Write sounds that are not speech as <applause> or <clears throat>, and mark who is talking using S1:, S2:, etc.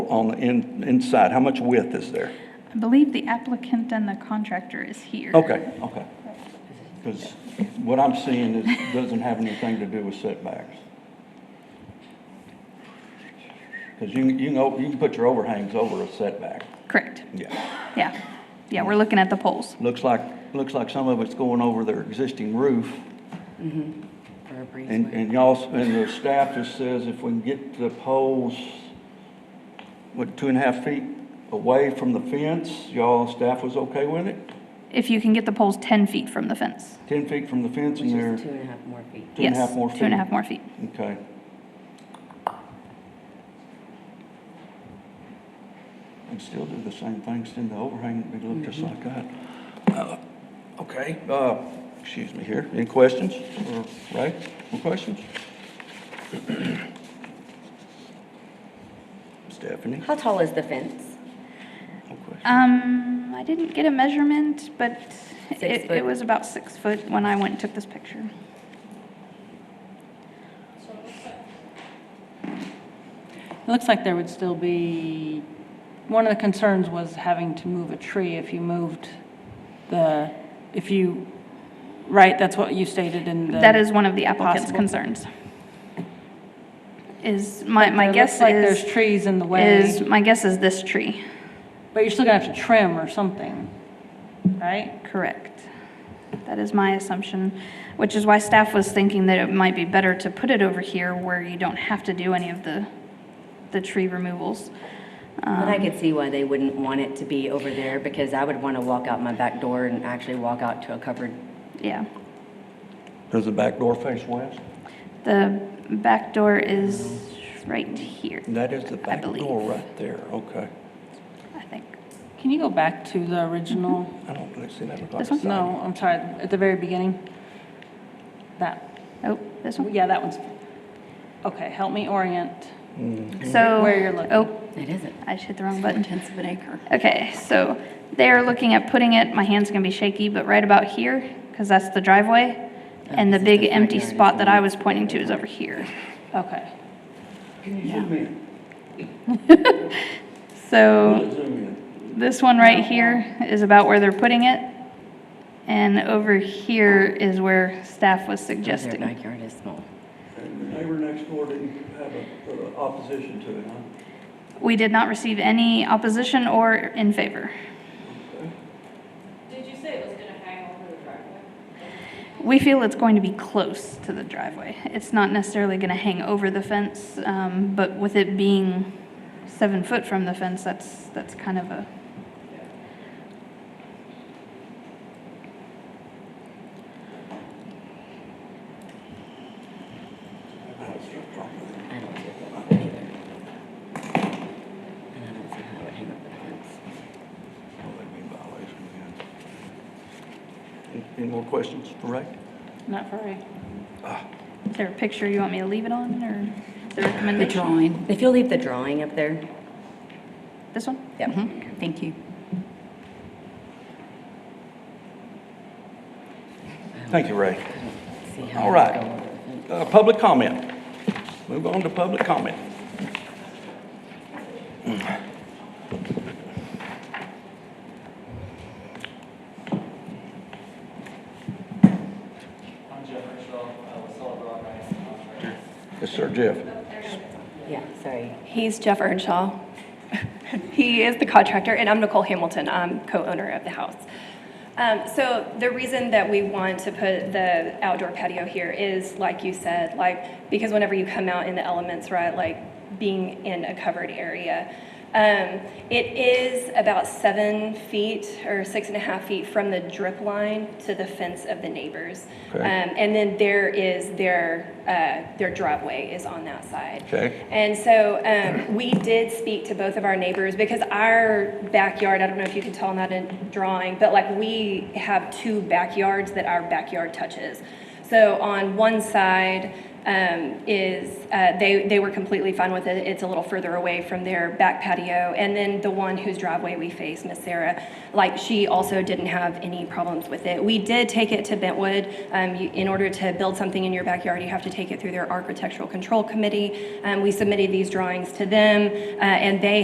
S1: on the in, inside? How much width is there?
S2: I believe the applicant and the contractor is here.
S1: Okay, okay. Because what I'm seeing is, doesn't have anything to do with setbacks. Because you, can- you can, o- you can put your overhangs over a setback.
S2: Correct.
S1: Yeah.
S2: Yeah. Yeah, we're looking at the poles.
S1: Looks like, looks like some of it's going over their existing roof.
S3: for a
S1: And,
S3: breezeway.
S1: and y'all, and the staff just says if we can get the poles, what, two and a half feet away from the fence, y'all, staff was okay with it?
S2: If you can get the poles 10 feet from the fence.
S1: Ten feet from the fence
S3: Which
S1: and they're
S3: is two and a half more feet.
S1: two and a
S2: Yes,
S1: half more feet?
S2: Two and a half more feet.
S1: Okay. And still do the same thing, send the overhang, we look just
S2: Mm-hmm.
S1: like that. Uh, Okay, uh, excuse me here, any questions? Or, Ray, no questions? <clears throat> Stephanie,
S3: How tall is the fence?
S1: no questions?
S2: Um, I didn't get a measurement, but
S3: Six
S2: it, it
S3: foot.
S2: was about six foot when I went and took this picture.
S4: It looks like there would still be, one of the concerns was having to move a tree if you moved the, if you, right, that's what you stated in the.
S2: That is one of the applicant's
S4: Applicant's-
S2: concerns. Is, my, my
S4: It
S2: guess
S4: looks like there's
S2: is,
S4: trees in the
S2: is,
S4: way,
S2: my guess is this tree,
S4: but you're still gonna have to trim or something, right?
S2: correct? That is my assumption, which is why staff was thinking that it might be better to put it over here where you don't have to do any of the, the tree removals. Um,
S3: But I
S1: Um,
S3: could see why they wouldn't want it to be over there because I would want to walk out my back door and actually walk out to a covered.
S2: Yeah.
S1: Does the back door face west?
S2: The back door is right here,
S1: That is the back
S2: believe.
S1: door right there, okay.
S2: I think.
S4: Can you go back to the original?
S1: I don't really see that look like a
S2: This one?
S1: sign.
S4: No, I'm sorry, at the very beginning? That,
S2: Oh, this one?
S4: yeah, that one's, okay, help me orient.
S1: Mm.
S2: So.
S4: Where you're looking.
S2: Oh,
S3: It isn't.
S2: I just hit the wrong button.
S3: Tenths of an acre.
S2: Okay, so they are looking at putting it, my hand's gonna be shaky, but right about here, because that's the driveway. And the
S3: this is
S2: big
S3: the front
S2: empty
S3: yard,
S2: spot that
S3: isn't it?
S2: I was pointing to is over here.
S4: Okay,
S1: Can you zoom in?
S2: So
S1: Zoom in.
S2: this one right here is about where they're putting it. And over here is where staff was
S3: Their
S2: suggesting.
S3: backyard is small.
S1: And the neighbor next door didn't have a, uh, opposition to it, huh?
S2: We did not receive any opposition or in favor.
S5: Did you say it was gonna hang over the driveway?
S2: We feel it's going to be close to the driveway. It's not necessarily going to hang over the fence, um, but with it being seven foot from the fence, that's, that's kind of a,
S3: I don't see it that way either. And I don't see how it would hang up the fence.
S1: Well, they'd be in violation again. Any more questions for Ray?
S4: not very.
S2: is there a picture you want me to leave it on or the recommendation?
S3: drawing. If you'll leave the drawing up there.
S2: This one?
S3: Yep. Thank you.
S1: Thank you, Ray.
S3: See how
S1: All
S3: it would
S1: right.
S3: go over the fence.
S1: Uh, public comment. Move on to public comment.
S6: I'm Jeff Richwell, uh, with Solid Rock Ice and Contractors.
S1: Yes, sir, Jeff.
S3: Yeah, sorry.
S7: He's Jeff Earnshaw. <laughs> He is the contractor, and I'm Nicole Hamilton. I'm co-owner of the house. Um, So the reason that we want to put the outdoor patio here is, like you said, like, because whenever you come out in the elements, right, like being in a covered area. Um, It is about seven feet or six and a half feet from the drip line to the fence of the neighbors.
S1: Okay.
S7: Um, And then there is their, uh, their driveway is on that side.
S1: Okay.
S7: And so um, we did speak to both of our neighbors because our backyard, I don't know if you can tell in that in drawing, but like we have two backyards that our backyard touches. So on one side um, is, uh, they, they were completely fine with it. It's a little further away from their back patio. And then the one whose driveway we face, Miss Sarah, like she also didn't have any problems with it. We did take it to Bentwood. Um, you, in order to build something in your backyard, you have to take it through their architectural control committee. Um, we submitted these drawings to them, uh, and they